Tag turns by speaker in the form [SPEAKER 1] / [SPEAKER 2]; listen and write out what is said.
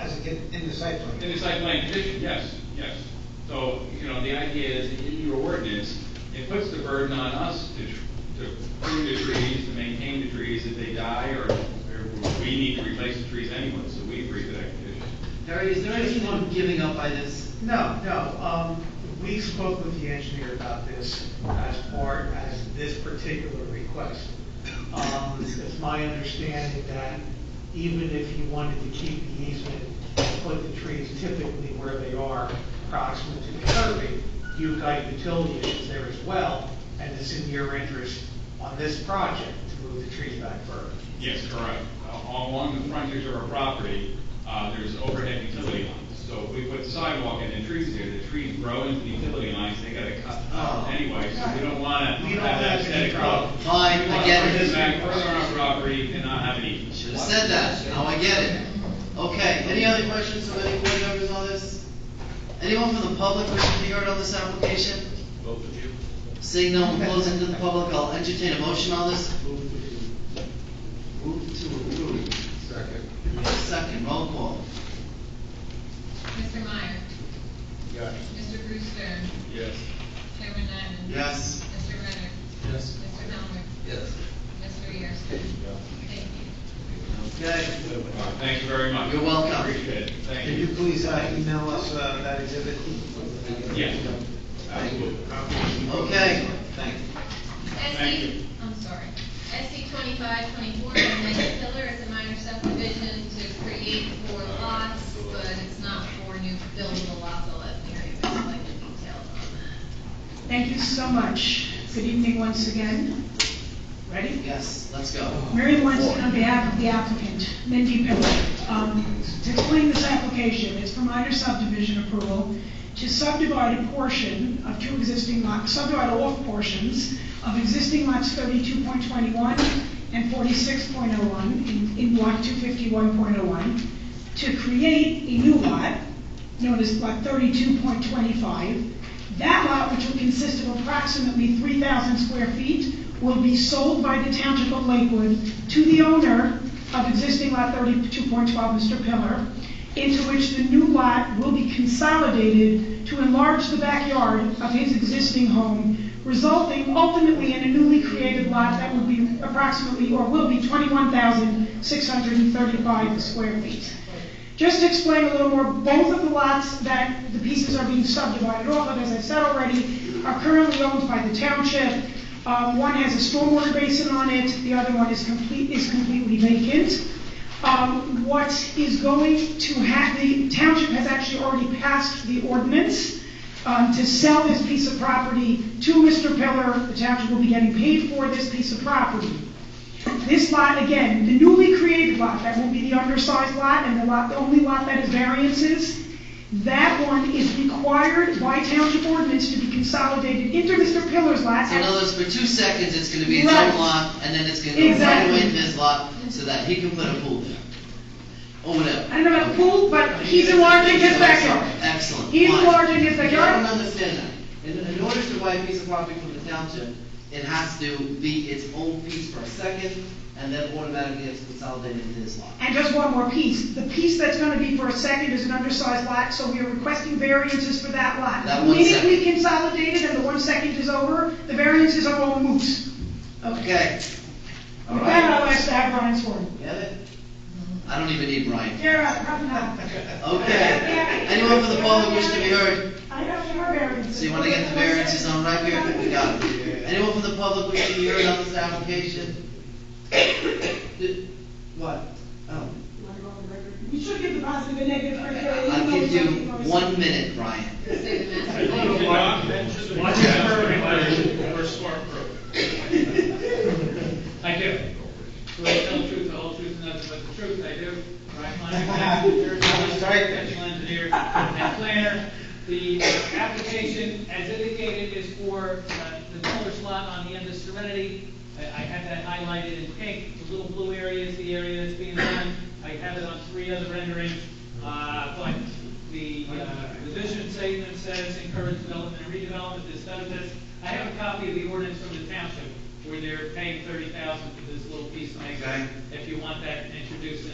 [SPEAKER 1] in the site plan.
[SPEAKER 2] In the site plan condition, yes, yes. So, you know, the idea is, that in your ordinance, it puts the burden on us to, tr- to prune the trees, to maintain the trees if they die, or, or we need to replace the trees anyway, so we agree with that condition.
[SPEAKER 3] Harry, is there anyone giving up by this?
[SPEAKER 1] No, no, um, we spoke with the engineer about this as part, as this particular request. Um, it's my understanding that even if you wanted to keep the easement, put the trees typically where they are, proximate to the curbing, you've got utility issues there as well, and it's in your interest on this project to move the trees back further.
[SPEAKER 2] Yes, correct. Uh, Along the frontage of our property, uh, there's overhead utility lines. So if we put sidewalk and then trees there, the trees grow into the utility lines, they gotta cut
[SPEAKER 3] Oh.
[SPEAKER 2] out anyway, so we don't wanna
[SPEAKER 1] We don't
[SPEAKER 2] have that
[SPEAKER 1] have any
[SPEAKER 2] aesthetic problem.
[SPEAKER 1] problem.
[SPEAKER 3] Fine,
[SPEAKER 2] We wanna
[SPEAKER 3] I get
[SPEAKER 2] put
[SPEAKER 3] it.
[SPEAKER 2] this back further on our property and not have it eaten.
[SPEAKER 3] Should have said that, now I get it. Okay, any other questions from any board members on this? Anyone from the public wishing to be heard on this application?
[SPEAKER 4] Both of you?
[SPEAKER 3] Seeing no one closing to the public, I'll entertain a motion on this. Move to approve.
[SPEAKER 4] Second.
[SPEAKER 3] Need a Second, roll call.
[SPEAKER 5] Mr. Meyer,
[SPEAKER 4] Yes.
[SPEAKER 5] Mr. Brewster,
[SPEAKER 4] Yes.
[SPEAKER 5] Chairman Nyman.
[SPEAKER 3] Yes.
[SPEAKER 5] Mr. Renner,
[SPEAKER 4] Yes.
[SPEAKER 5] Mr. Helmer,
[SPEAKER 3] Yes.
[SPEAKER 5] Mr. Yersin. Thank you.
[SPEAKER 3] Okay,
[SPEAKER 2] All right, Thank you very much.
[SPEAKER 3] You're welcome.
[SPEAKER 2] Appreciate it. Thank
[SPEAKER 1] Can you
[SPEAKER 2] you.
[SPEAKER 1] please uh, email us uh, that exhibit?
[SPEAKER 2] Yeah, absolutely.
[SPEAKER 3] okay. Thank
[SPEAKER 2] Thank you.
[SPEAKER 5] SC, I'm sorry, SC twenty-five twenty-four, Nice Pillar is a minor subdivision to create four lots, but it's not four new buildable lots, I'll let Mary explain the details on that.
[SPEAKER 6] Thank you so much. Good evening once again. Ready?
[SPEAKER 3] Yes, let's go.
[SPEAKER 6] Mary Weinstein on behalf of the applicant, Mindy Pimble. Um, To explain this application, it's for minor subdivision approval to subdivide a portion of two existing lots, subdivide off portions of existing lots 32.21 and 46.01 in- in block 251.01 to create a new lot known as lot thirty-two point twenty-five. That lot, which will consist of approximately three thousand square feet, will be sold by the Township of Lakewood to the owner of existing lot thirty-two point twelve, Mr. Pillar, into which the new lot will be consolidated to enlarge the backyard of his existing home, resulting ultimately in a newly created lot that will be approximately, or will be twenty-one thousand six hundred and thirty-five square feet. Just to explain a little more, both of the lots that the pieces are being subdivided off of, as I've said already, are currently owned by the township. Um, one has a stormwater basin on it, the other one is complete, is completely vacant. Um, what is going to happen? the township has actually already passed the ordinance, um, to sell this piece of property to Mr. Pillar. The township will be getting paid for this piece of property. This lot, again, the newly created lot, that will be the undersized lot and the lot, the only lot that is variances, that one is required by township ordinance to be consolidated into Mr. Pillar's lot.
[SPEAKER 3] So in other words, for two seconds, it's gonna be its
[SPEAKER 6] Right.
[SPEAKER 3] own lot, and then it's gonna go right
[SPEAKER 6] Exactly.
[SPEAKER 3] away into his lot, so that he can put a pool there. Or whatever.
[SPEAKER 6] I don't know about pool, but he's enlarging his backyard.
[SPEAKER 3] Excellent.
[SPEAKER 6] He's
[SPEAKER 3] Fine.
[SPEAKER 6] enlarging his
[SPEAKER 3] I don't
[SPEAKER 6] backyard.
[SPEAKER 3] understand that. In, in order to buy a piece of property from the township, it has to be its own piece for a second, and then automatically it's consolidated into this lot.
[SPEAKER 6] And just one more piece, the piece that's gonna be for a second is an undersized lot, so we are requesting variances for that lot.
[SPEAKER 3] That one second.
[SPEAKER 6] Immediately consolidated and the one second is over, the variances are all moot.
[SPEAKER 3] Okay. All
[SPEAKER 6] With that, I'll
[SPEAKER 3] right.
[SPEAKER 6] ask to have Brian sworn.
[SPEAKER 3] Get it? I don't even need Brian.
[SPEAKER 6] Yeah, probably not.
[SPEAKER 3] Okay. Anyone from the public wish to be heard?
[SPEAKER 6] I have four variances.
[SPEAKER 3] So you wanna get the variances on right here? We got it. Anyone from the public wish to be heard on this application? Did- What? Oh,
[SPEAKER 6] You should give the positive and negative criteria.
[SPEAKER 3] I'll give you one minute, Brian.
[SPEAKER 5] Say the master.
[SPEAKER 2] Thank you.
[SPEAKER 7] Watch it for everybody, we're smart bro. I do.
[SPEAKER 2] Do I tell the truth, the whole truth, and nothing but the truth? I do. Brian Lyon, professional engineer and planner.
[SPEAKER 8] The application, as indicated, is for uh, the color slot on the end of Serenity. I I have that highlighted in pink, the little blue area is the area that's being done. I have it on three other renderings, Uh, but the, uh, the vision statement says encourage development and redevelopment, this benefits. I have a copy of the ordinance from the township, where they're paying thirty thousand for this little piece of land.
[SPEAKER 3] Okay.
[SPEAKER 8] If you want that introduced in